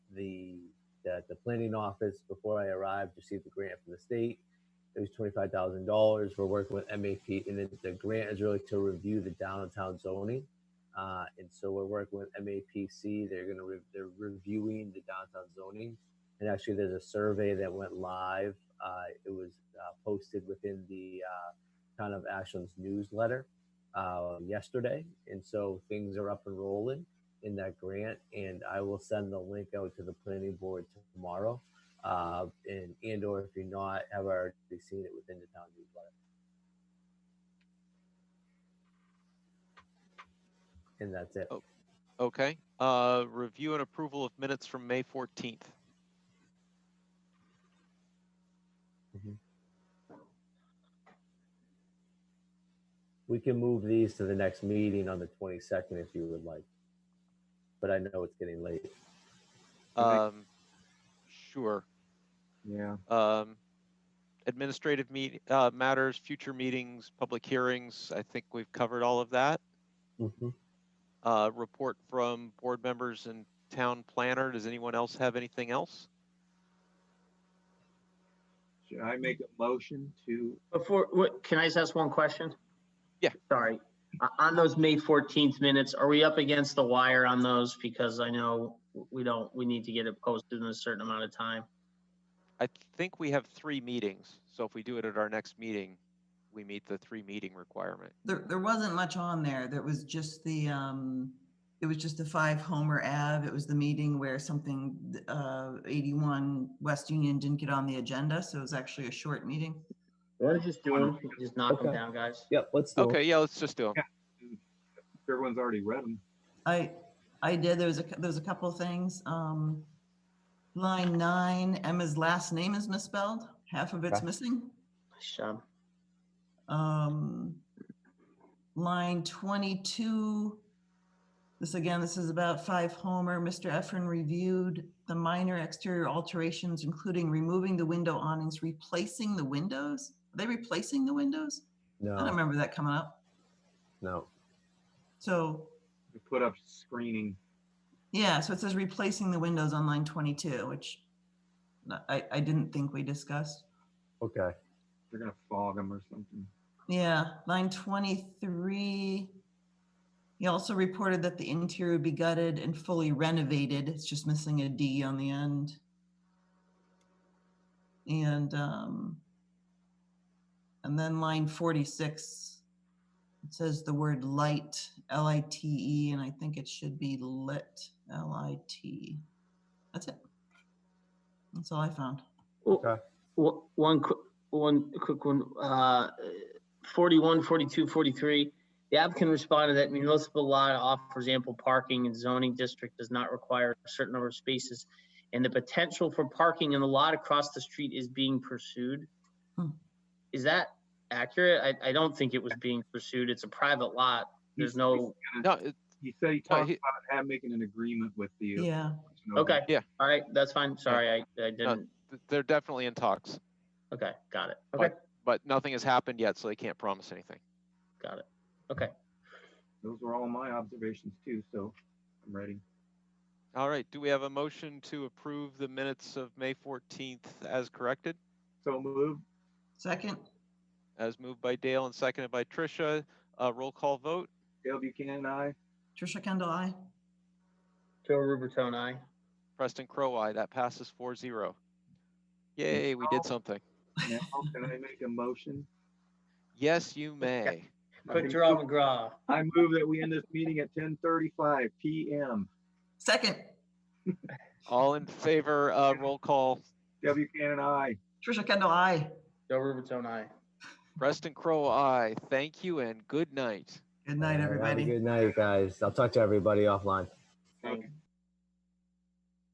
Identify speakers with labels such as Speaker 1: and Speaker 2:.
Speaker 1: uh, the planning office before I arrived, received a grant from the state. It was twenty-five thousand dollars. We're working with MAP, and the, the grant is really to review the downtown zoning. Uh, and so we're working with MAPC. They're gonna, re- they're reviewing the downtown zoning. And actually, there's a survey that went live. Uh, it was uh, posted within the uh, Town of Ashland's newsletter uh, yesterday. And so things are up and rolling in that grant. And I will send the link out to the planning board tomorrow. Uh, and, and or if you're not, have already seen it within the town newsletter. And that's it.
Speaker 2: Okay, uh, review and approval of minutes from May fourteenth.
Speaker 1: We can move these to the next meeting on the 22nd if you would like. But I know it's getting late.
Speaker 3: Okay.
Speaker 2: Um, sure.
Speaker 3: Yeah,
Speaker 2: Um, administrative meet, uh, matters, future meetings, public hearings, I think we've covered all of that.
Speaker 1: Mhm.
Speaker 2: Uh, report from board members and town planner. Does anyone else have anything else?
Speaker 3: should I make a motion to,
Speaker 4: Before, what, can I just ask one question?
Speaker 2: Yeah.
Speaker 4: Sorry. O- On those May 14th minutes, are we up against the wire on those? Because I know we don't, we need to get it posted in a certain amount of time.
Speaker 2: I think we have three meetings, so if we do it at our next meeting, we meet the three meeting requirement.
Speaker 5: There, there wasn't much on there. There was just the, um, it was just the five Homer Ave. It was the meeting where something, uh, eighty-one West Union didn't get on the agenda, so it was actually a short meeting.
Speaker 4: Why don't you just do them? Just knock them
Speaker 1: Okay.
Speaker 4: down, guys.
Speaker 1: Yep, let's do it.
Speaker 2: Okay, yeah, let's just do them.
Speaker 3: everyone's already read them.
Speaker 5: I, I did, there was a, cou- there was a couple things, um, line nine, Emma's last name is misspelled, half of it's
Speaker 1: Okay.
Speaker 5: missing.
Speaker 4: Nice job.
Speaker 5: um, line 22. This again, this is about 5 Homer. Mr. Efron reviewed the minor exterior alterations, including removing the window awnings, replacing the windows. Are they replacing the windows? I don't
Speaker 1: No,
Speaker 5: remember that coming up.
Speaker 1: no.
Speaker 5: So,
Speaker 3: We put up screening.
Speaker 5: yeah, so it says replacing the windows on line 22, which I, I didn't think we discussed.
Speaker 1: Okay.
Speaker 3: They're gonna fog them or something.
Speaker 5: Yeah, line twenty-three. He also reported that the interior would be gutted and fully renovated. It's just missing a D on the end. And, um, and then line forty-six. It says the word light, L-I-T-E, and I think it should be lit, L-I-T. E. That's it. That's all I found.
Speaker 4: Well,
Speaker 1: Okay.
Speaker 4: wh- One, qu- one quick one, uh, 41, 42, 43. The applicant responded that municipal lot offers ample parking and zoning district does not require a certain number of spaces. And the potential for parking in the lot across the street is being pursued.
Speaker 5: Hmm.
Speaker 4: Is that accurate? I, I don't think it was being pursued. It's a private lot. There's no, Oh,
Speaker 2: No, it-
Speaker 3: He said he
Speaker 2: no,
Speaker 3: talked
Speaker 2: he-
Speaker 3: about have, making an agreement with the. uh,
Speaker 5: Yeah.
Speaker 3: you know,
Speaker 4: okay.
Speaker 2: Yeah.
Speaker 4: All right, that's fine. Sorry, I, I didn't.
Speaker 2: th- they're definitely in talks,
Speaker 4: Okay, got it.
Speaker 2: Fine.
Speaker 4: Okay,
Speaker 2: but nothing has happened yet, so they can't promise anything.
Speaker 4: got it. Okay.
Speaker 3: Those were all my observations too, so I'm ready.
Speaker 2: All right, do we have a motion to approve the minutes of May fourteenth as corrected?
Speaker 3: So move,
Speaker 5: Second,
Speaker 2: As moved by Dale and seconded by Tricia, uh, roll call vote.
Speaker 3: Dale Buchanan, I,
Speaker 5: Trisha Kendall, I.
Speaker 4: Joe Rubertone, aye.
Speaker 2: Preston Crowe, aye. That passes 4-0. Yay, we did
Speaker 3: Now-
Speaker 2: something.
Speaker 3: now can I make a motion?
Speaker 2: Yes, you may.
Speaker 4: Quick
Speaker 3: I
Speaker 4: draw
Speaker 3: move-
Speaker 4: McGraw.
Speaker 3: I move that we end this meeting at ten thirty-five PM.
Speaker 5: Second,
Speaker 2: All in favor, uh, roll call.
Speaker 3: Dale Buchanan, I.
Speaker 5: Trisha Kendall, I.
Speaker 4: Joe Rubertone, aye.
Speaker 2: Preston Crowe, aye. Thank you and good night.
Speaker 5: Good
Speaker 1: All
Speaker 5: night,
Speaker 1: right, have a
Speaker 5: everybody.
Speaker 1: Good night, guys. I'll talk to everybody offline.
Speaker 4: Thanks.